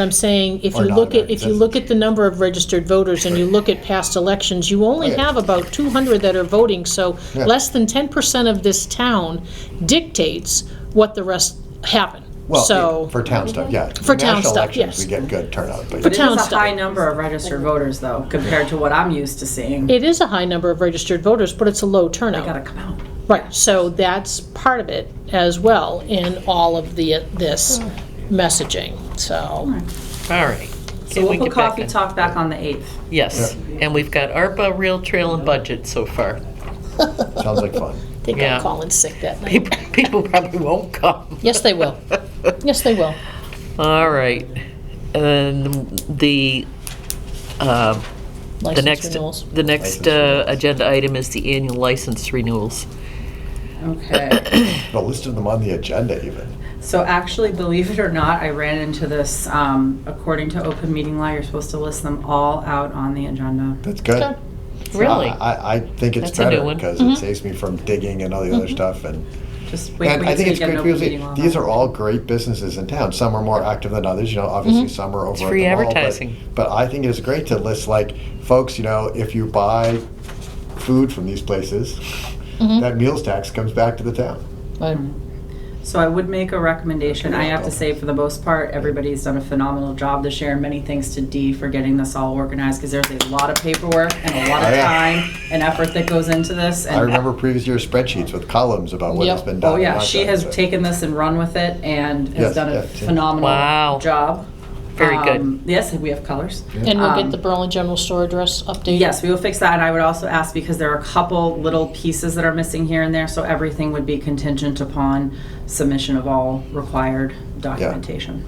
I'm saying, if Or you not, look at, right, if you that's- look at the number of registered voters and you look at past elections, you only Okay. have about 200 that are voting, so Yeah. less than 10% of this town dictates what the rest happen. Well, So, for town stuff, yeah. For town National stuff, elections, yes. We get good turnout, but. For But it town is a stuff. high number of registered voters, though, compared to what I'm used to seeing. it is a high number of registered voters, but it's a low turnout. Gotta come out. Right, so that's part of it as well in all of the, this messaging, so. All right. So Can we'll we put get back coffee on- talk back on the 8th. Yes, and we've got ARPA, Real Trail, and budget so far. Sounds like fun. I think Yeah. I'm calling sick that night. People people probably won't come. Yes, they will. Yes, they will. All right. And the, uh, the License next, renewals. the next License uh, renewals. agenda item is the annual license renewals. Okay. But listed them on the agenda even. So actually, believe it or not, I ran into this, um, according to open meeting law, you're supposed to list them all out on the agenda. That's good. Okay. Really? I- I, I think it's That's a new better one. because it saves me from digging and all the other stuff and. Just wait And wait I till think you it's get great an people open say, meeting law. these are all great businesses in town. Some are more active than others, you know, obviously some are over It's at free the mall, but- advertising. But I think it is great to list like, folks, you know, if you buy food from these places, that meals tax comes back to the town. Right. So I would make a recommendation. I have to say, for the most part, everybody's done a phenomenal job this year. and Many thanks to Dee for getting this all organized because there's a lot of paperwork and a lot Oh, of yeah. time and effort that goes into this. I And remember previous year spreadsheets with columns about what has Yep. been done. Oh, yeah, not she done, has so. taken this and run with it and Yes, has done yeah, a yeah. phenomenal Wow. job. Very good. Um, Yes, we have colors. And we'll get Um, the Berlin General Store address updated. Yes, we will fix that, and I would also ask, because there are a couple little pieces that are missing here and there, so everything would be contingent upon submission of all required documentation.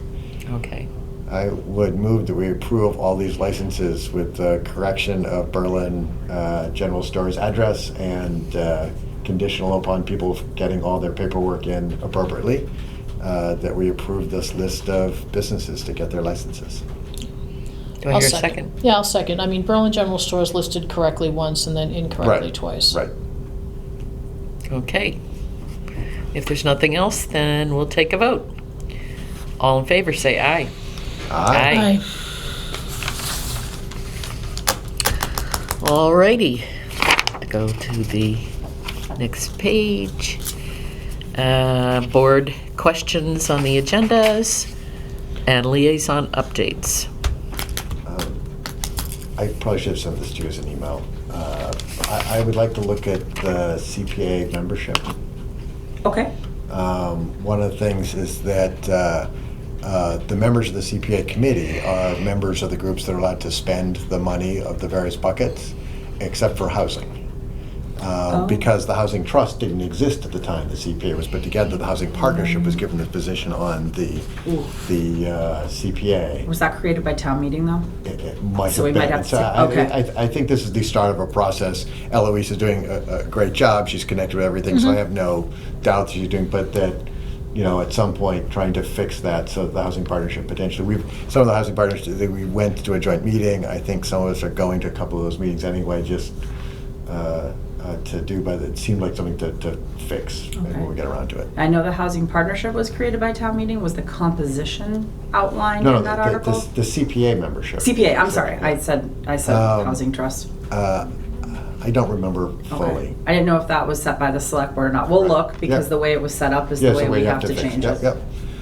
Okay. I would move that we approve all these licenses with the correction of Berlin uh, General Store's address and uh, conditional upon people getting all their paperwork in appropriately, uh, that we approve this list of businesses to get their licenses. Do I I'll hear a second? Yeah, I'll second. I mean, Berlin General Store is listed correctly once and then incorrectly Right, twice. Right. Okay. If there's nothing else, then we'll take a vote. All in favor, say aye. Aye. Aye. Alrighty, go to the next page. Uh, Board questions on the agendas and liaison updates. Um, I probably should have sent this to you as an email. Uh, I I would like to look at the CPA membership. Okay, Um, One of the things is that uh, uh, the members of the CPA committee are members of the groups that are allowed to spend the money of the various buckets, except for housing. Uh, Oh. Because the housing trust didn't exist at the time the CPA was put together, the housing partnership was given this position on the, the uh, CPA. was that created by town meeting, though? It- it might So we have been. might have And so to take- I- okay. I, I, I think this is the start of a process. Eloise is doing a, a great job. She's connected with everything, Mm-hmm. so I have no doubt that she's doing. But that, you know, at some point, trying to fix that so the housing partnership potentially. We've some of the housing partners that we went to a joint meeting. I think some of us are going to a couple of those meetings anyway, just uh, uh, to do. But it seemed like something to, to fix maybe when Okay. we get around to it. I know the housing partnership was created by town meeting, was the composition outlined No, no, in that the, article? the, the CPA membership. CPA, I'm sorry, I said, I said Um, housing trust. Uh, I don't remember fully. Okay. I didn't know if that was set by the select board or not. We'll Right. look, because Yep. the way it was set up is the Yes, way we you have to change Yep, it. yep.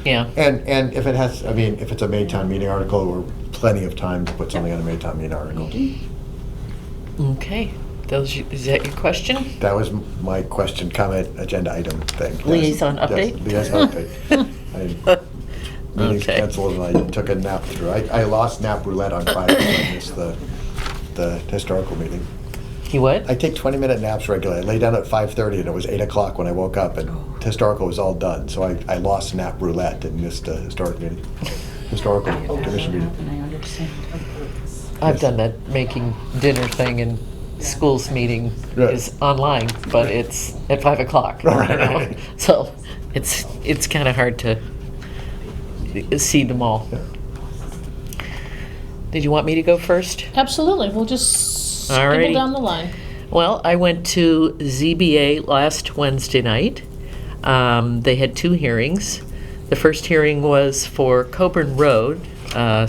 Yeah, And, and if it has, I mean, if it's a Maytown meeting article, we're plenty of time to put something on a Maytown meeting article. okay. Those, is that your question? That was m- my question, comment, agenda item thing. Yes, Liaison yes, update? Liaison update. I- Meetings Okay. canceled and I took a nap through. I, I lost nap roulette on Friday, so I missed the, the historical meeting. You I what? take twenty-minute naps regularly. I lay down at five-thirty and it was eight o'clock when I woke up and historical was all done. So I, I lost nap roulette and missed a historic meeting, historical commission meeting. And I understand. I've done that making dinner thing and schools meeting Right. is online, but it's at five o'clock. you Right. know? So it's, it's kind of hard to see them all. Yeah. Did you want me to go first? Absolutely, we'll just Alrighty. scribble down the line. Well, I went to ZBA last Wednesday night. Um, they had two hearings. The first hearing was for Coburn Road, uh,